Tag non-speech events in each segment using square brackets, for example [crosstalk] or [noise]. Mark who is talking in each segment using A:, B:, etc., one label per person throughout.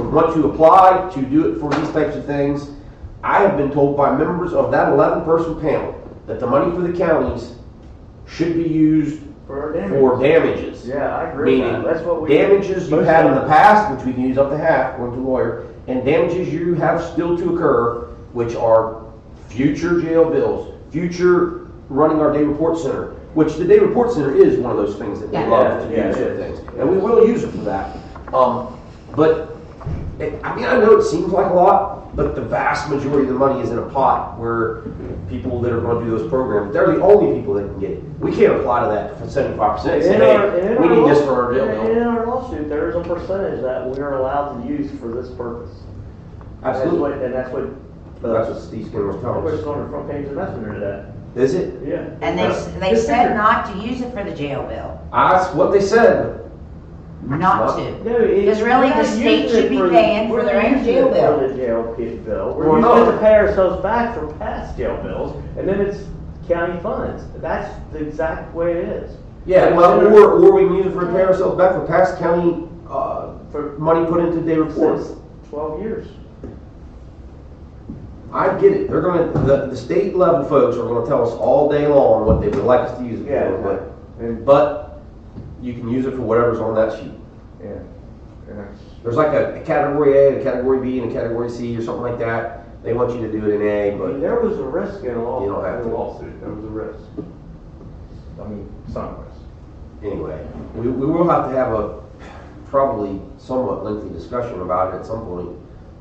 A: and want to apply to do it for these types of things, I have been told by members of that eleven person panel that the money for the counties should be used
B: For damage.
A: for damages.
B: Yeah, I agree with
A: Meaning,
B: that, that's what we.
A: damages you had in the past, which we can use up to half, according to the lawyer, and damages you have still to occur, which are future jail bills, future running our day report center, which the day report center is one of those things that we
C: Yeah.
A: love to
B: Yeah, yeah,
A: use
B: it
A: for
B: is.
A: things, and we will use it for that. Um, but, it- I mean, I know it seems like a lot, but the vast majority of the money is in a pot where people that are gonna do those programs, they're the only people that can get it. We can't apply to that for seventy-five percent, say,
B: In our-
A: hey,
B: in
A: we
B: our
A: need this
B: law-
A: for our jail bill.
B: In our lawsuit, there is a percentage that we are allowed to use for this purpose. That's
A: Absolutely.
B: what- And that's what,
A: That's what Steve Skinner was
B: that
A: telling
B: was
A: us.
B: on the front page of Messenger today,
A: Is it?
B: yeah.
C: And they, they
B: Just
C: said
B: figure.
C: not to use it for the jail bill,
A: That's what they said.
C: not to.
B: No, it-
C: Because really,
B: we're
C: the
B: not
C: state
B: using
C: should
B: it
C: be
B: for-
C: paying for
B: we're
C: their
B: not
C: own
B: using
C: jail
B: it
C: bill.
B: For the jail kid bill, we're
A: Well,
B: using it
A: no.
B: to pay ourselves back for past jail bills, and then it's county funds, that's the exact way it is.
A: Yeah, well, or, or we can use it to repair ourselves back for past county, uh,
B: For,
A: money put into day reports.
B: since twelve years.
A: I get it, they're gonna, the, the state level folks are gonna tell us all day long what they would like us to use it for, but,
B: And,
A: but you can use it for whatever's on that sheet.
B: yeah, and that's.
A: There's like a, a category A, and a category B, and a category C, or something like that, they want you to do it in A,
B: I mean,
A: but,
B: there was a risk in a
A: You don't
B: law,
A: have
B: in a
A: to.
B: lawsuit, there was a risk. I mean, some risk.
A: anyway. We, we will have to have a probably somewhat lengthy discussion about it at some point,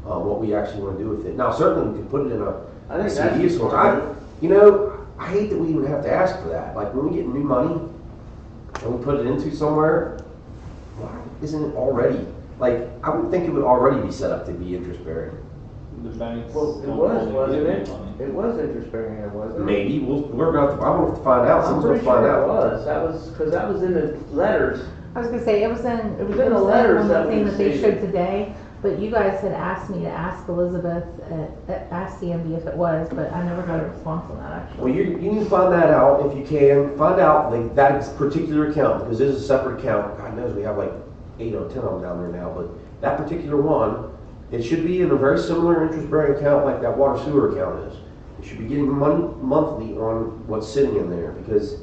A: uh, what we actually wanna do with it. Now, certainly, we can put it in a
B: I think
A: See,
B: that's.
A: these ones, I- You know, I hate that we even have to ask for that. Like when we get new money and we put it into somewhere, why isn't it already? Like I would think it would already be set up to be interest bearing.
D: The banks.
B: Well, it
D: don't
B: was,
D: really
B: wasn't
D: give
B: it?
D: you money.
B: It was interest bearing, it wasn't it?
A: Maybe we'll we're gonna have to. I'm gonna have to find out.
B: I'm
A: Someone's gonna
B: pretty sure
A: find
B: it
A: out.
B: was, that was, cause that was in the letters,
E: I was gonna say, it was in, it was in
B: the
E: the
B: letters
E: letters,
B: that
E: that
B: we
E: thing that they
B: received.
E: showed today, but you guys had asked me to ask Elizabeth at, at, ask CMB if it was, but I never got a response on that
A: Well,
E: actually.
A: you you need to find that out if you can. Find out like that particular account because this is a separate account. God knows we have like eight or ten of them down there now, but that particular one, it should be in a very similar interest bearing account like that water sewer account is. It should be getting money monthly on what's sitting in there because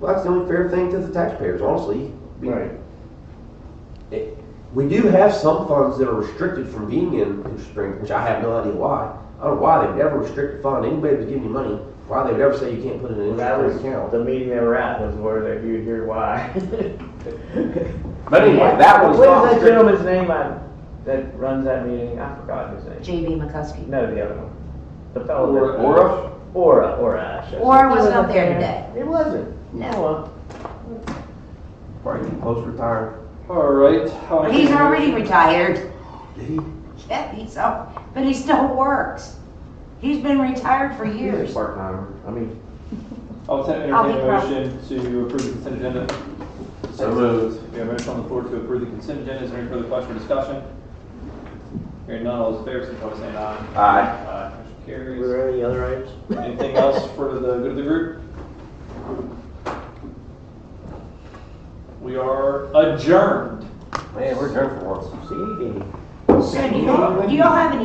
A: well, that's the only fair thing to the taxpayers, honestly. We-
B: Right.
A: It, we do have some funds that are restricted from being in interest bearing, which I have no idea why. I don't know why they'd ever restrict a fund. Anybody that's giving you money, why they would ever say you can't put it in an
B: that was,
A: interest bearing account.
B: the meeting they were at was where they, you hear why. [laughs]
A: But anyway, that one's not.
B: What is that
A: restricted.
B: gentleman's name I- that runs that meeting, I forgot his name,
C: JB McCuskey.
B: no, the other one, the fellow.
A: Or,
B: that-
A: or,
B: Aura, Aura, I should say.
C: Or was not there today.
B: It wasn't, no,
A: probably too close to retire.
D: All right. how
C: He's
D: can we-
C: already retired. [laughs]
A: Did he?
C: Yeah, he's up, but he still works. He's been retired for
B: he's a
C: years.
B: part timer, I mean,
D: I'll ta-
C: I'll be
D: entertain a motion to approve the consent agenda.
A: So moved.
D: We have a motion on the floor to approve the consent agenda. Is there any further question or discussion? Hearing none, all those in favor, signify by saying aye.
A: Aye.
D: Aye. Motion
B: were
D: carries.
B: there any other items?
D: Anything else for the good of the group? We are adjourned.
A: Man, we're done for once.
B: See,
C: So do y'all, do y'all have any